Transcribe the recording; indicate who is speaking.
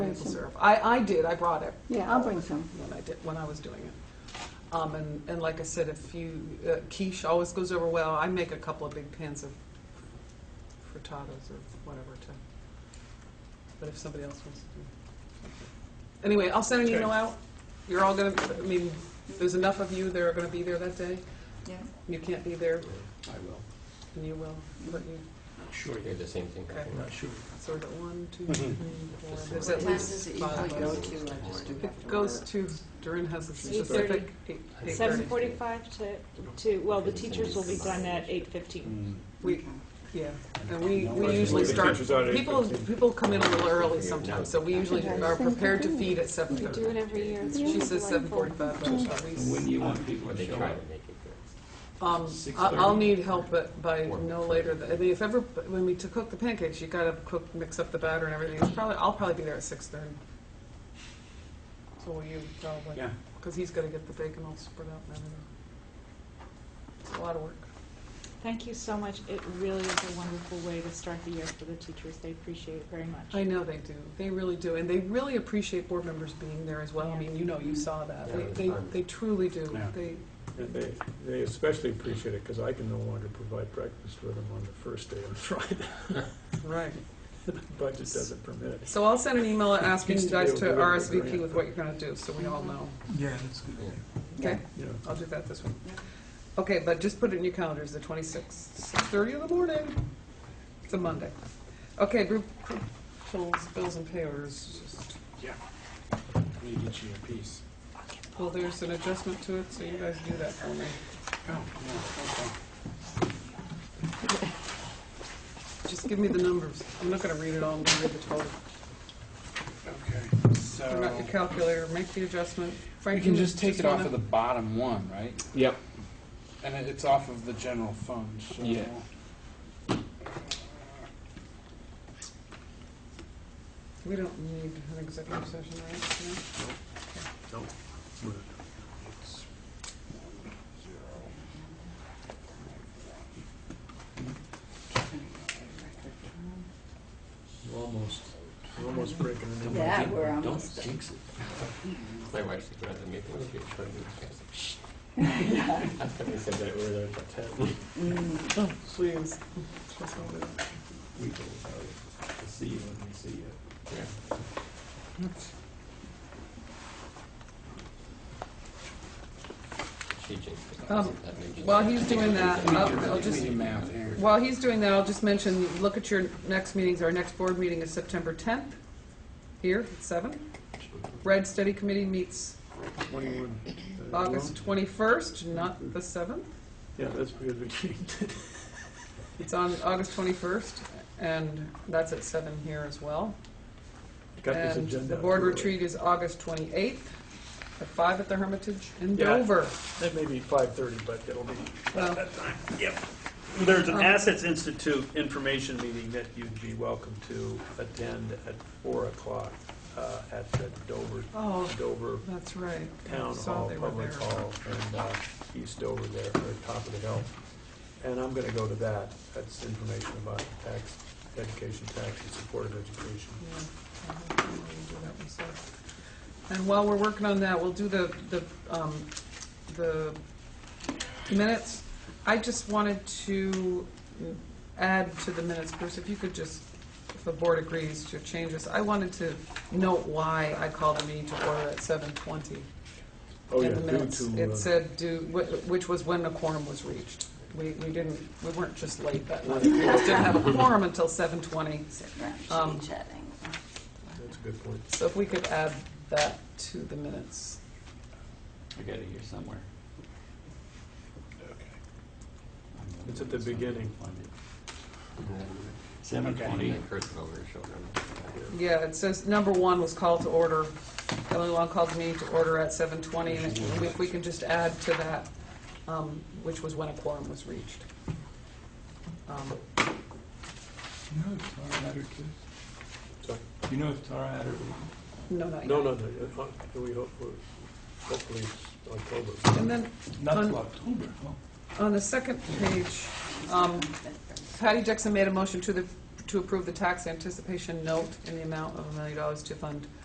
Speaker 1: can serve. I, I did, I brought it
Speaker 2: Yeah, I'll bring some.
Speaker 1: when I did, when I was doing it. Um, and, and like I said, if you, uh, quiche always goes over well. I make a couple of big pans of frittatas or whatever to, but if somebody else wants to do. Anyway, I'll send an
Speaker 3: Okay.
Speaker 1: email out. You're all gonna, I mean, there's enough of you that are gonna be there that day.
Speaker 2: Yeah.
Speaker 1: You can't be there,
Speaker 3: I will.
Speaker 1: and you will, but you,
Speaker 3: Sure,
Speaker 4: You're the same thing.
Speaker 1: Okay.
Speaker 3: I'm not sure.
Speaker 1: so we're at one, two,
Speaker 3: Mhm.
Speaker 1: three, four, there's at
Speaker 5: What time
Speaker 1: least
Speaker 5: does it
Speaker 1: five of
Speaker 5: usually go
Speaker 1: us.
Speaker 5: to? I just do have to
Speaker 1: It goes
Speaker 5: work.
Speaker 1: to, Durin has a specific,
Speaker 6: 8:30.
Speaker 1: eight, eight
Speaker 6: Seven
Speaker 1: thirty.
Speaker 6: forty-five to, to, well, the teachers will be done at eight fifteen.
Speaker 7: Mm.
Speaker 1: We, yeah, and we, we
Speaker 3: Right.
Speaker 1: usually
Speaker 3: The
Speaker 1: start,
Speaker 3: teachers are at
Speaker 1: people,
Speaker 3: 8:15.
Speaker 1: people come in a little early sometimes, so we usually are prepared to feed at seven
Speaker 6: We do it
Speaker 1: thirty.
Speaker 6: every year.
Speaker 1: She says seven forty-five, but it's at
Speaker 7: When
Speaker 1: least-
Speaker 7: do you want people
Speaker 4: Or
Speaker 7: to
Speaker 4: they
Speaker 7: show
Speaker 4: try
Speaker 7: up?
Speaker 4: to make it good.
Speaker 1: um, I- I'll need help at- by no later than, I mean, if ever, when we to cook the pancakes, you gotta cook, mix up the batter and everything, it's probably, I'll probably be there at six thirty. So will you, probably.
Speaker 3: Yeah.
Speaker 1: Because he's gotta get the bacon all spread out and everything. It's a lot of work.
Speaker 6: Thank you so much. It really is a wonderful way to start the year for the teachers. They appreciate it very much.
Speaker 1: I know they do. They really do. And they really appreciate board members being there as well. I
Speaker 6: Yeah.
Speaker 1: mean, you know, you saw that.
Speaker 4: Yeah, it was
Speaker 1: They, they,
Speaker 4: fun.
Speaker 1: they truly do.
Speaker 3: Yeah.
Speaker 1: They,
Speaker 3: And they, they especially appreciate it because I can no longer provide breakfast for them on the first day on Friday.
Speaker 1: right.
Speaker 3: The budget doesn't permit it.
Speaker 1: So I'll send an email asking
Speaker 3: Used
Speaker 1: you
Speaker 3: to be
Speaker 1: guys
Speaker 3: able
Speaker 1: to
Speaker 3: to do it with
Speaker 1: RSVP
Speaker 3: grant.
Speaker 1: with what you're gonna do, so we all know.
Speaker 7: Yeah, that's good.
Speaker 1: Okay?
Speaker 3: Yeah.
Speaker 1: I'll do that this week. Okay, but just put it in your calendars, the twenty-sixth, six-thirty in the morning. It's a Monday. Okay, group, group bills, bills and payers.
Speaker 3: Yeah. Need each year piece.
Speaker 1: Well, there's an adjustment to it, so you guys do that for me.
Speaker 3: Oh, no, okay.
Speaker 1: Just give me the numbers. I'm not gonna read it all, I'm gonna read the total.
Speaker 7: Okay,
Speaker 1: Bring out your
Speaker 7: so
Speaker 1: calculator, make the adjustment.
Speaker 7: Oh. we
Speaker 1: Frank,
Speaker 7: can just take it off
Speaker 1: wanna-
Speaker 7: of the bottom one, right?
Speaker 8: Yep.
Speaker 7: And it- it's off of the general fund, so.
Speaker 8: Yeah.
Speaker 1: We don't need an executive session, right?
Speaker 3: We're Almost, we're almost breaking a new.
Speaker 5: Yeah, we're almost there.
Speaker 7: jinx it.
Speaker 4: My wife said, rather make it with your children. Shh. I thought they said that we were there for ten.
Speaker 7: Oh,
Speaker 1: No? Please.
Speaker 3: We can, uh, see you when we see you.
Speaker 4: She jinxed it.
Speaker 1: Um,
Speaker 4: That made you-
Speaker 1: While he's doing that, I'll- I'll
Speaker 7: Give me
Speaker 1: just,
Speaker 7: the math here.
Speaker 1: while he's doing that, I'll just mention, look at your next meetings. Our next board meeting is September 10th, here at 7. Red Study Committee meets
Speaker 3: Twenty-one. uh,
Speaker 1: August
Speaker 3: well,
Speaker 1: 21st, not the 7th.
Speaker 3: Yeah, that's because we changed it.
Speaker 1: It's on August 21st, and that's at 7 here as well.
Speaker 3: Got this
Speaker 1: And Um,
Speaker 3: agenda uh,
Speaker 1: the
Speaker 3: out
Speaker 1: board
Speaker 3: early.
Speaker 1: retreat is August 28th at 5 at the Hermitage in
Speaker 3: Yeah.
Speaker 1: Dover.
Speaker 3: That may be five-thirty, but it'll be
Speaker 1: Well,
Speaker 3: There's
Speaker 1: Um,
Speaker 3: an Assets Institute information meeting that you'd be welcome to attend at four o'clock uh, at the Dover,
Speaker 1: Oh,
Speaker 3: Dover
Speaker 1: that's right. I
Speaker 3: Town
Speaker 1: saw
Speaker 3: Hall,
Speaker 1: they were
Speaker 3: Public
Speaker 1: there.
Speaker 3: Hall, and uh, East Dover there, at the top of the hill. And I'm gonna go to that. That's information about tax, education tax and supportive education.
Speaker 1: Yeah, I don't know why we do that one, so. And while we're working on that, we'll do the, the, um, the minutes. I just wanted to add to the minutes, Bruce, if you could just, if the board agrees to change this, I wanted to note why I called the meeting to order at seven twenty.
Speaker 3: Oh, yeah,
Speaker 1: in the
Speaker 3: due
Speaker 1: minutes,
Speaker 3: to,
Speaker 1: it
Speaker 3: uh,
Speaker 1: said, do, wh- which was when the quorum was reached. We, we didn't, we weren't just late that night, we just didn't have a quorum until seven twenty.
Speaker 5: Sit around, chitty
Speaker 1: Um,
Speaker 5: chatting.
Speaker 3: that's a good point.
Speaker 1: So if we could add that to the minutes.
Speaker 7: I got it here somewhere.
Speaker 3: It's at the beginning.
Speaker 7: Seven
Speaker 4: And
Speaker 7: twenty.
Speaker 4: that cursive over her shoulder.
Speaker 1: Yeah, it says, number one was call to order. Ellen Long called me to order at seven twenty, and if- if we can just add to that, um, which was when a quorum was reached. Um,
Speaker 7: You know who Tara Adder is?
Speaker 3: So-
Speaker 7: You know who Tara Adder is?
Speaker 1: No, not yet.
Speaker 3: No, no, no, uh, we hope, we're- hopefully it's October.
Speaker 1: And then,
Speaker 7: Not
Speaker 1: Un-
Speaker 7: till October, huh?
Speaker 1: on the second page, um, Patty Dixon made a motion to the, to approve the tax anticipation note in the amount of a million dollars to fund